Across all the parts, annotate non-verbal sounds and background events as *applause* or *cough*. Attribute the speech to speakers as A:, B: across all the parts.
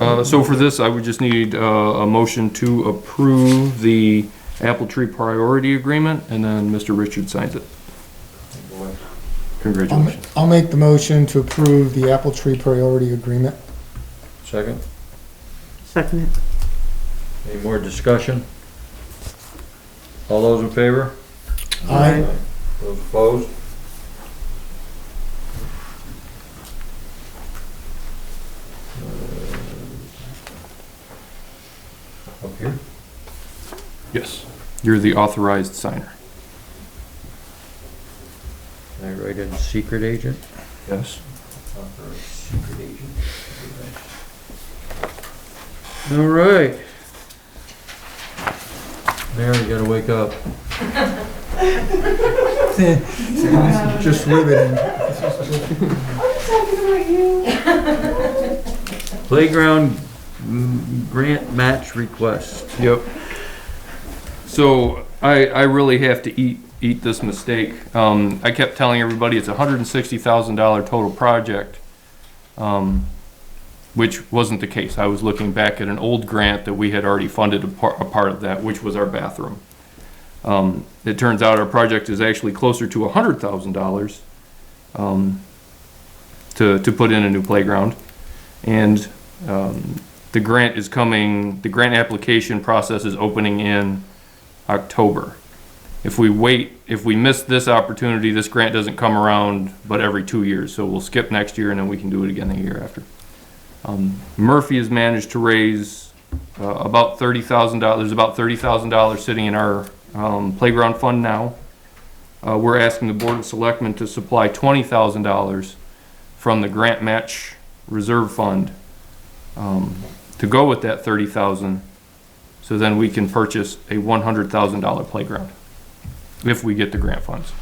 A: Uh, so for this, I would just need, uh, a motion to approve the Apple Tree Priority Agreement, and then Mr. Richard signs it.
B: I'll ma-
A: Congratulations.
B: I'll make the motion to approve the Apple Tree Priority Agreement.
C: Second,
D: Second it.
C: any more discussion? All those in favor?
B: Aye.
C: Those opposed? Uh, Up here?
A: Yes, you're the authorized signer.
C: Can I write in secret agent?
A: Yes.
C: All right. Mary, you gotta wake up.
B: Just riveting.
C: Playground mm, grant match request.
A: Yep. So I, I really have to eat, eat this mistake. Um, I kept telling everybody it's a hundred and sixty thousand dollar total project. Um, which wasn't the case. I was looking back at an old grant that we had already funded a part, a part of that, which was our bathroom. Um, it turns out our project is actually closer to a hundred thousand dollars, um, to, to put in a new playground. And, um, the grant is coming, the grant application process is opening in October. If we wait, if we miss this opportunity, this grant doesn't come around but every two years, so we'll skip next year and then we can do it again the year after. Um, Murphy has managed to raise, uh, about thirty thousand dollars, there's about thirty thousand dollars sitting in our, um, playground fund now. Uh, we're asking the Board of Selectmen to supply twenty thousand dollars from the grant match reserve fund, um, to go with that thirty thousand, so then we can purchase a one hundred thousand dollar playground. If we get the grant funds.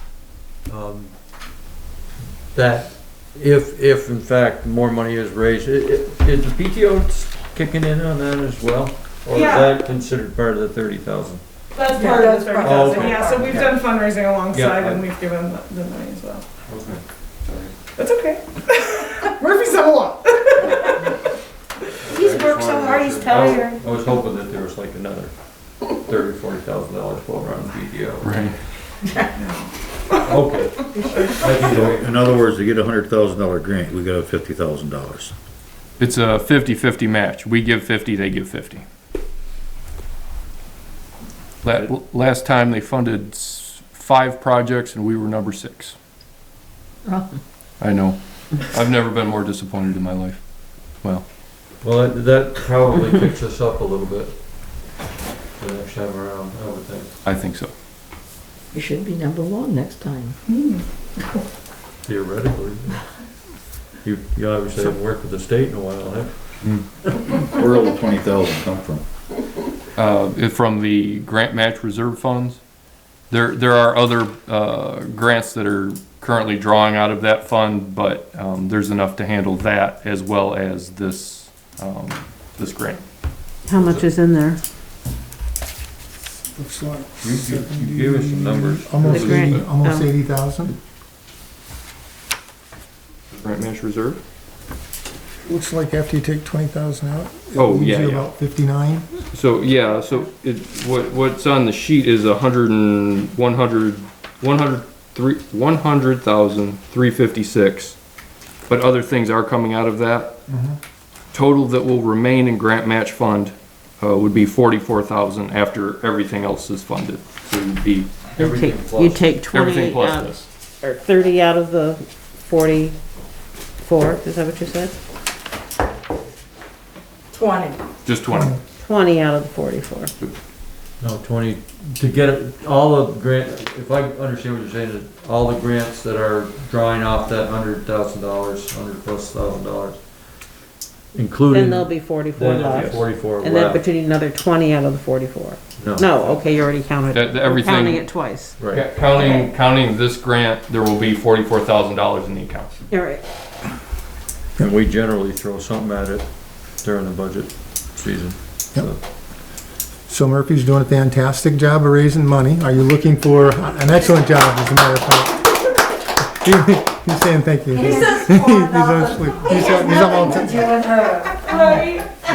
C: um, that if, if in fact more money is raised, i- i- is the PTO kicking in on that as well? Or is
E: Yeah.
C: that considered part of the thirty thousand?
E: That's
D: Yeah,
E: part of
D: that's
E: the
D: part
E: thirty
D: of
C: it.
E: thousand, yeah, so we've
C: Yeah.
E: done fundraising alongside
C: Yeah.
E: and we've given the- the money as well.
C: Okay.
D: *laughs*
E: That's okay. Murphy's done a *laughs* lot.
F: He's worked so hard, he's tired.
C: Oh, I was hoping that there was like another thirty, forty thousand dollars over on PTO.
A: Right.
C: Okay. That's
G: So,
C: the way-
G: In other words, to get a hundred thousand dollar grant, we got a fifty thousand dollars.
A: It's a fifty-fifty match. We give fifty, they give fifty. La- last time they funded s- five projects and we were number six. I know. I've never been more disappointed in my life.
C: Well, that- that probably picks us up a little bit the next time around, I would think.
A: I think so.
D: You should be number one next time.
C: Theoretically. You, you obviously haven't worked with the state in a while, have you?
G: Where will the twenty thousand come from?
A: uh, if from the grant match reserve funds. There, there are other, uh, grants that are currently drawing out of that fund, but, um, there's enough to handle that as well as this, um, this grant.
D: How much is in there?
B: Looks like
C: You- you- you gave us some numbers.
B: Almost
D: The grant,
B: eighty, almost
D: oh.
B: eighty thousand.
A: Grant match reserve?
B: Looks like after you take twenty thousand out. it
A: Oh,
B: leaves
A: yeah,
B: you
A: yeah.
B: About fifty-nine.
A: So, yeah, so it, what, what's on the sheet is a hundred and, one hundred, one hundred, three, one hundred thousand, three fifty-six. But other things are coming out of that.
B: Mhm.
A: total that will remain in grant match fund uh, would be forty-four thousand after everything else is funded. So it'd be
D: You
C: Everything
D: take, you
C: plus.
D: take
A: everything
D: twenty
A: plus
D: out,
A: this.
D: or thirty out of the forty-four, is that what you said?
F: Twenty.
A: Just twenty.
D: Twenty out of the forty-four.
C: No, twenty, to get it, all of grant, if I understand what you're saying, is all the grants that are drawing off that hundred thousand dollars, hundred plus thousand dollars, including.
D: Then there'll be forty-four
C: then there'll be
D: left.
C: Forty-four
D: And then,
C: left.
D: but you need another twenty out of the forty-four.
C: No.
D: No, okay, you already counted.
A: That- that
D: You're
A: everything-
D: Counting it twice.
C: Right,
A: Counting, counting this grant, there will be forty-four thousand dollars in the account.
D: All right.
C: and we generally throw something at it during the budget season.
B: Yep. So Murphy's doing a fantastic job of raising money. Are you looking for an excellent job, as a matter of fact? *laughs* He's saying thank you.
F: He
B: *laughs* He's
F: says four
B: actually-
F: thousand. He
B: he's-
F: has
B: he's all-
E: uh,
F: nothing to do with her.
E: Right?